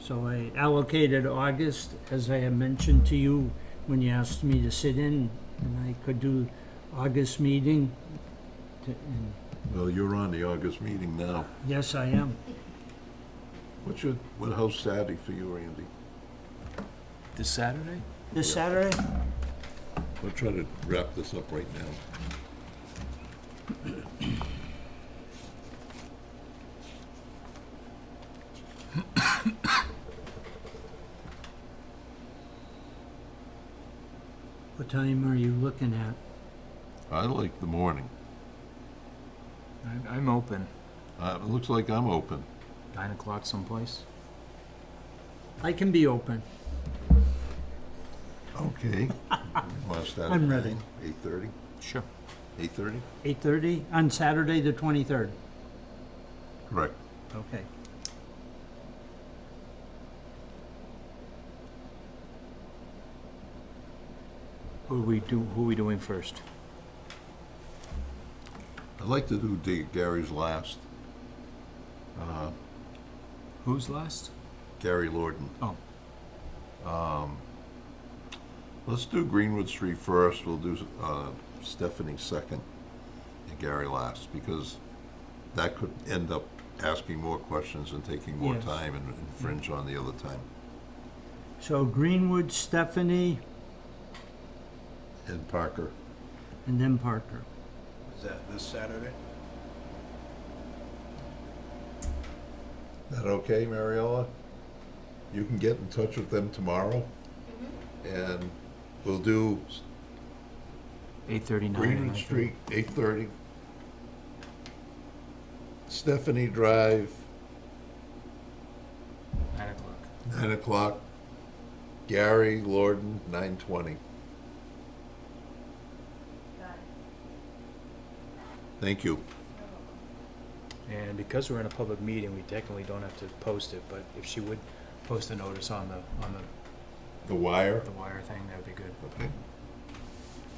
So I allocated August, as I had mentioned to you when you asked me to sit in, and I could do August meeting. to- and Well, you're on the August meeting now. Yes, I am. What's your, what, how's Saturday for you, Randy? This Saturday? This Saturday? We're trying to wrap this up right now. What time are you looking at? I like the morning. I- I'm open. Uh, it looks like I'm open. Nine o'clock someplace. I can be open. Okay. Want to start at I'm ready. nine, 8:30? Sure. 8:30? 8:30 on Saturday, the 23rd. Correct. Okay. Who are we do? Who are we doing first? I'd like to do Da- Gary's last, Who's last? Gary Lorden. Oh, Let's do Greenwood Street first, we'll do uh, Stephanie second, and Gary last, because that could end up asking more questions and taking more Yes. time and infringe on the other time. So Greenwood, Stephanie, And Parker, and then Parker. Is that this Saturday? that okay, Mariella? You can get in touch with them tomorrow, and we'll do eight thirty-nine. Greenwood Street, eight thirty. Stephanie Drive, Nine o'clock. nine o'clock. Gary Lorden, nine twenty. Thank you. And because we're in a public meeting, we technically don't have to post it. But if she would post a notice on the on the, The wire? the wire thing, that would be good. Okay.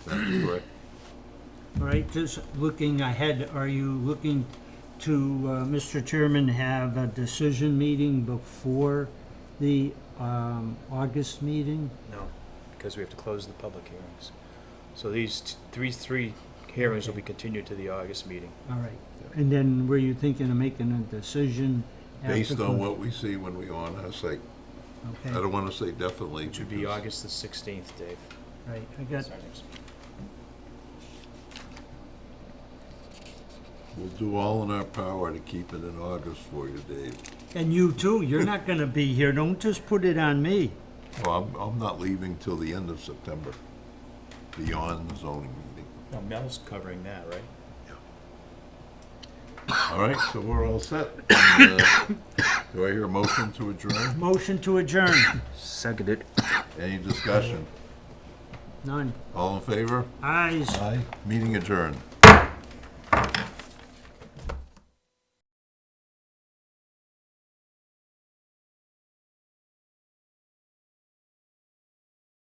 That's correct. All right, just looking ahead, are you looking to, uh, Mr. Chairman, have a decision meeting before the um, August meeting? No, because we have to close the public hearings. So these t- three three hearings will be continued to the August meeting. All right. And then were you thinking of making a decision? after Based on clo- what we see when we go on our site. I Okay, don't want to say definitely. It should be because- August the sixteenth, Dave. right, I got, That's our next meeting. We'll do all in our power to keep it in August for you, Dave. and you too, you're not gonna be here, don't just put it on me. Well, I'm, I'm not leaving till the end of September, beyond the zoning meeting. Now Mel's covering that, right? All right, so we're all set. And, uh, Do I hear a motion to adjourn? Motion to adjourn, Seconded. Any discussion? none, All in favor? ayes. Aye. Meeting adjourned.